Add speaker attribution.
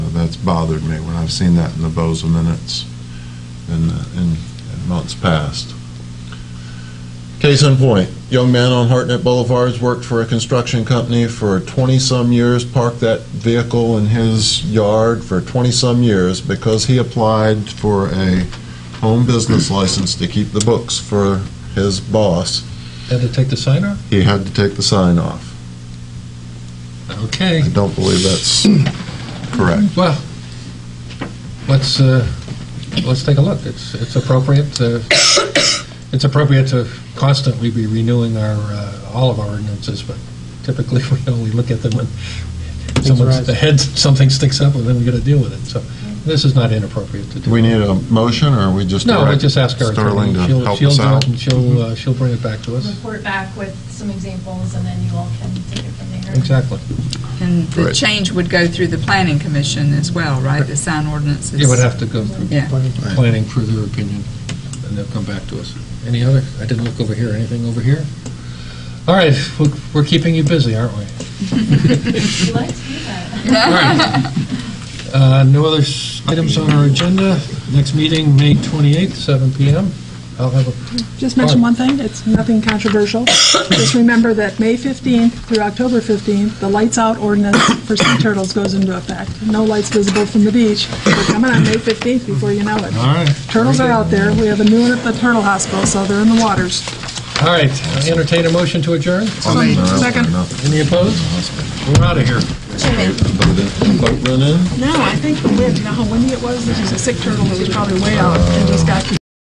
Speaker 1: that's bothered me when I've seen that in the Boza minutes in, in in months past. Case in point, young man on Hartnett Boulevard's worked for a construction company for 20-some years, parked that vehicle in his yard for 20-some years because he applied for a home business license to keep the books for his boss.
Speaker 2: Had to take the sign off?
Speaker 1: He had to take the sign off.
Speaker 2: Okay,
Speaker 1: I don't believe that's correct.
Speaker 2: well, let's, uh, let's take a look. It's, it's appropriate, uh, it's appropriate to constantly be renewing our, uh, all of our ordinances, but typically we only look at them when someone's,
Speaker 3: rise.
Speaker 2: the head, something sticks up, and then we gotta deal with it, so this is not inappropriate to do.
Speaker 1: Do we need a motion, or we just?
Speaker 2: No, I
Speaker 1: direct
Speaker 2: just ask our
Speaker 1: Sterling
Speaker 2: attorney.
Speaker 1: to
Speaker 2: She'll-
Speaker 1: help
Speaker 2: she'll
Speaker 1: us
Speaker 2: do it,
Speaker 1: out?
Speaker 2: And she'll, uh, she'll bring it back to us.
Speaker 4: report back with some examples, and then you all can take it from there.
Speaker 2: Exactly.
Speaker 5: And the
Speaker 1: Right.
Speaker 5: change would go through the planning commission as well, right? The sign ordinances.
Speaker 2: It would have to go through
Speaker 5: Yeah.
Speaker 2: planning for their opinion, and they'll come back to us. Any other, I didn't look over here, anything over here? All right, we're- we're keeping you busy, aren't we?
Speaker 4: We like to do that.
Speaker 2: All right. Uh, No other s- items on our agenda. Next meeting, May 28th, 7 PM. I'll have a,
Speaker 3: Just mention one thing, it's nothing controversial. Just remember that May 15th through October 15th, the lights out ordinance for sea turtles goes into effect. No lights visible from the beach. They're coming on May 15th before you know it.
Speaker 2: all right.
Speaker 3: Turtles are out there. We have a new one at the Turtle Hospital, so they're in the waters.
Speaker 2: All right, I entertain a motion to adjourn.
Speaker 3: Second.
Speaker 1: No,
Speaker 2: Any opposed? We're out of here.
Speaker 1: but it- but run in?
Speaker 3: No, I think, when- you know how windy it was? This is a sick turtle that was probably way out and just got